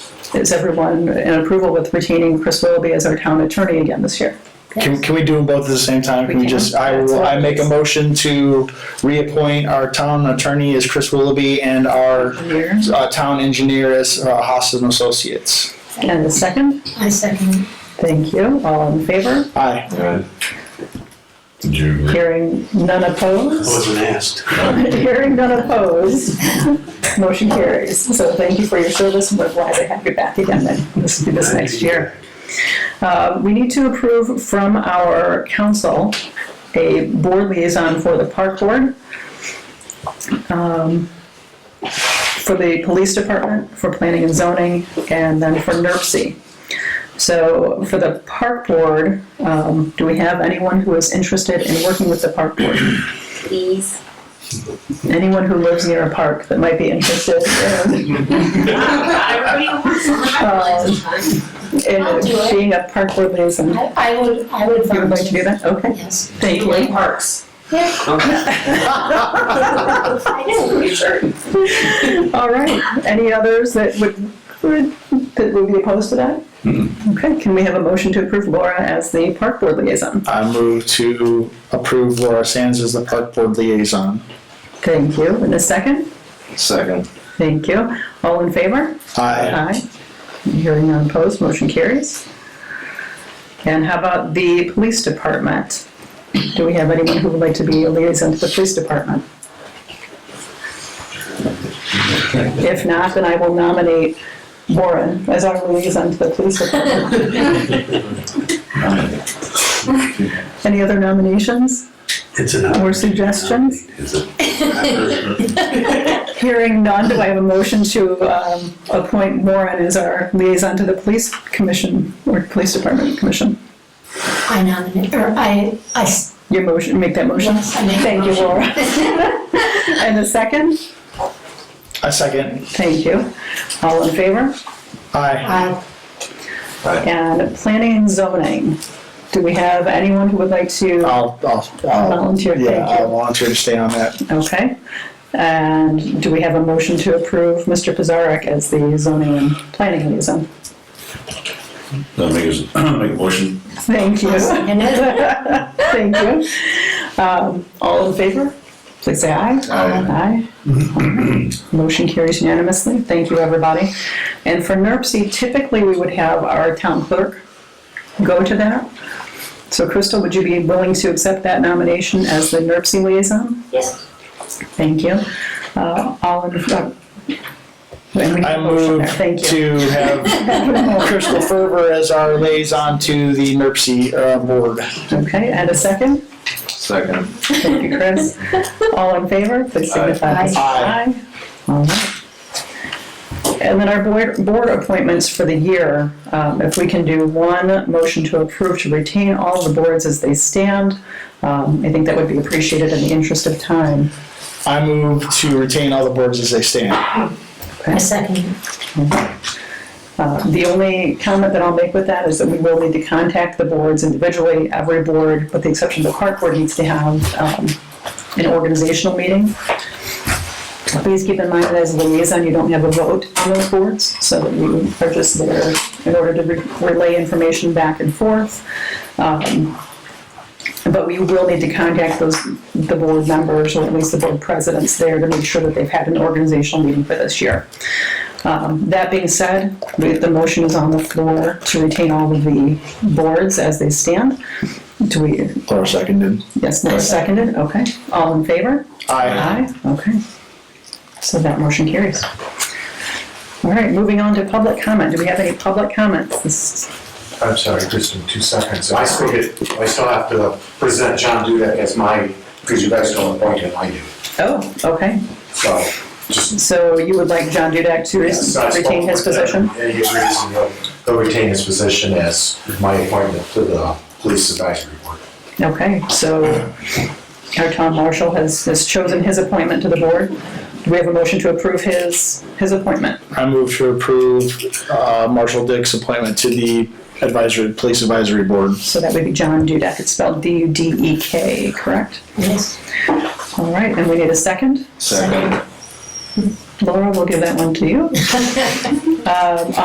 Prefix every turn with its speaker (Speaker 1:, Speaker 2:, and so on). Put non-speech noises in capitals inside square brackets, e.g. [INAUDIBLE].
Speaker 1: Is everyone in approval with retaining Chris Willoughby as our town attorney again this year?
Speaker 2: Can, can we do them both at the same time? Can we
Speaker 1: We can.
Speaker 2: just, I
Speaker 1: That's
Speaker 2: will,
Speaker 1: what
Speaker 2: I
Speaker 1: it
Speaker 2: make a
Speaker 1: is.
Speaker 2: motion to reappoint our town attorney as Chris Willoughby and our
Speaker 1: Year.
Speaker 2: uh, town engineer as uh, Hostas and Associates.
Speaker 1: And a second?
Speaker 3: I second.
Speaker 1: Thank you. All in favor?
Speaker 2: Aye.
Speaker 4: Alright. Did you agree?
Speaker 1: Hearing none opposed?
Speaker 5: wasn't asked.
Speaker 1: [LAUGHS] Hearing none opposed. Motion carries. So thank you for your service and we're glad to have you back again then. Let's do this next year. Uh, We need to approve from our council a board liaison for the park board, um, for the police department, for planning and zoning, and then for E NERC. So for the park board, um, do we have anyone who is interested in working with the park board?
Speaker 3: Please.
Speaker 1: anyone who lives near a park that might be interested in, um,
Speaker 3: I I'll do
Speaker 1: in
Speaker 3: it.
Speaker 1: being a park board liaison. You
Speaker 3: I would, I would
Speaker 1: would like to do
Speaker 3: volunteer.
Speaker 1: that? Okay.
Speaker 3: Yes.
Speaker 1: Thank you.
Speaker 6: parks.
Speaker 3: Yeah, I know.
Speaker 1: All right. Any others that would, would- that would be opposed to that? Okay, can we have a motion to approve Laura as the park board liaison?
Speaker 2: I move to approve Laura Sands as the park board liaison.
Speaker 1: Thank you. In a second?
Speaker 4: Second.
Speaker 1: Thank you. All in favor?
Speaker 2: Aye.
Speaker 1: Aye. Hearing none opposed, motion carries. And how about the police department? Do we have anyone who would like to be a liaison to the police department? If not, then I will nominate Warren as our liaison to the police department. Any other nominations
Speaker 5: It's enough.
Speaker 1: or suggestions?
Speaker 4: Is it?
Speaker 1: Hearing none, do I have a motion to um, appoint Warren as our liaison to the police commission or police department commission?
Speaker 3: I nominate, or I, I, s-
Speaker 1: Your motion, make that motion.
Speaker 3: Yes, I make the
Speaker 1: Thank you,
Speaker 3: motion.
Speaker 1: Laura. [LAUGHS] And a second?
Speaker 2: I second.
Speaker 1: Thank you. All in favor?
Speaker 2: Aye.
Speaker 3: I,
Speaker 4: Aye.
Speaker 1: And planning and zoning. Do we have anyone who would like to?
Speaker 2: I'll, I'll, I'll,
Speaker 1: Volunteer,
Speaker 2: yeah,
Speaker 1: thank you.
Speaker 2: I'll volunteer to stay on that.
Speaker 1: Okay. And do we have a motion to approve Mr. Pizarnik as the zoning and planning liaison?
Speaker 4: I'll make a, [COUGHS] make a motion.
Speaker 1: Thank you. [LAUGHS] Thank you. Um, All in favor? Please say aye. Aye. Motion carries unanimously. Thank you, everybody. And for NERC, typically, we would have our town clerk go to that. So Crystal, would you be willing to accept that nomination as the NERC liaison?
Speaker 3: yes,
Speaker 1: Thank you. Uh, All in, uh, and we
Speaker 2: I
Speaker 1: have a motion
Speaker 2: move
Speaker 1: there. Thank you.
Speaker 2: to
Speaker 1: [LAUGHS]
Speaker 2: have Crystal Ferber as our liaison to the NERC uh, board.
Speaker 1: Okay, and a second?
Speaker 4: Second.
Speaker 1: Thank you, Chris. All in favor, please signify by saying
Speaker 2: Aye.
Speaker 1: aye. All right. And then our board, board appointments for the year, um, if we can do one motion to approve to retain all of the boards as they stand, um, I think that would be appreciated in the interest of time.
Speaker 2: I move to retain all the boards as they stand.
Speaker 3: I second.
Speaker 1: Uh, The only comment that I'll make with that is that we will need to contact the boards individually, every board, with the exception of the park board needs to have um, an organizational meeting. Please keep in mind that as a liaison, you don't have a vote on those boards, so that you are just there in order to re- relay information back and forth. Um, But we will need to contact those, the board members, or at least the board presidents there, to make sure that they've had an organizational meeting for this year. Um, That being said, we- the motion is on the floor to retain all of the boards as they stand. Do we,
Speaker 2: Laura seconded.
Speaker 1: yes, Laura seconded, okay. All in favor?
Speaker 2: Aye.
Speaker 1: Aye, okay. So that motion carries. All right, moving on to public comment. Do we have any public comments? This-
Speaker 7: I'm sorry, just in two seconds. I still get, I still have to present John Dudek as my, because you guys don't appoint him, I do.
Speaker 1: Oh, okay.
Speaker 7: So, just.
Speaker 1: So you would like John Dudek to
Speaker 7: yes, I
Speaker 1: re-
Speaker 7: spoke
Speaker 1: retain his
Speaker 7: with him,
Speaker 1: position?
Speaker 7: And he agrees, and he'll, he'll retain his position as my appointment to the police advisory board.
Speaker 1: Okay, so our town marshal has, has chosen his appointment to the board. Do we have a motion to approve his, his appointment?
Speaker 2: I move to approve uh, Marshall Dick's appointment to the advisory, police advisory board.
Speaker 1: So that would be John Dudek. It's spelled D-U-D-E-K, correct?
Speaker 3: Yes.
Speaker 1: All right, and we need a second.
Speaker 4: Second.
Speaker 1: Laura, we'll give that one to you. Um,